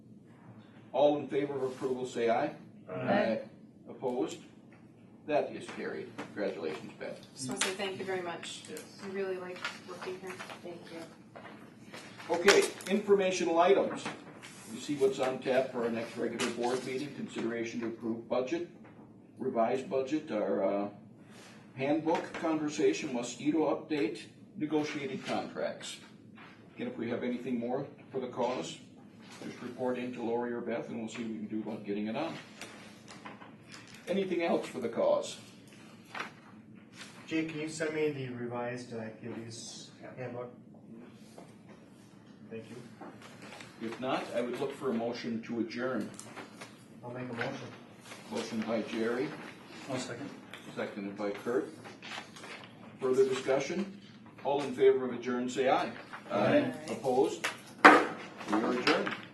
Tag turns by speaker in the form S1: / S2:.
S1: All in favor of approval, say aye. Uh,
S2: Aye.
S1: Opposed? That is carried. Congratulations, Beth.
S3: Just want to say thank you very much.
S2: Yes.
S3: I really like working here. Thank you.
S1: Okay, informational items. You see what's on tap for our next regular board meeting, consideration to approve budget, revised budget, our uh, handbook conversation, mosquito update, negotiated contracts. Again, if we have anything more for the cause, just report in to Lori or Beth and we'll see what we can do about getting it on. Anything else for the cause?
S4: Jake, can you send me the revised uh, activities handbook? Thank you.
S1: If not, I would look for a motion to adjourn.
S4: I'll make a motion.
S1: Motion by Jerry,
S2: One second.
S1: Seconded by Kurt. Further discussion? All in favor of adjourn, say aye.
S2: Aye.
S1: Opposed? We are adjourned.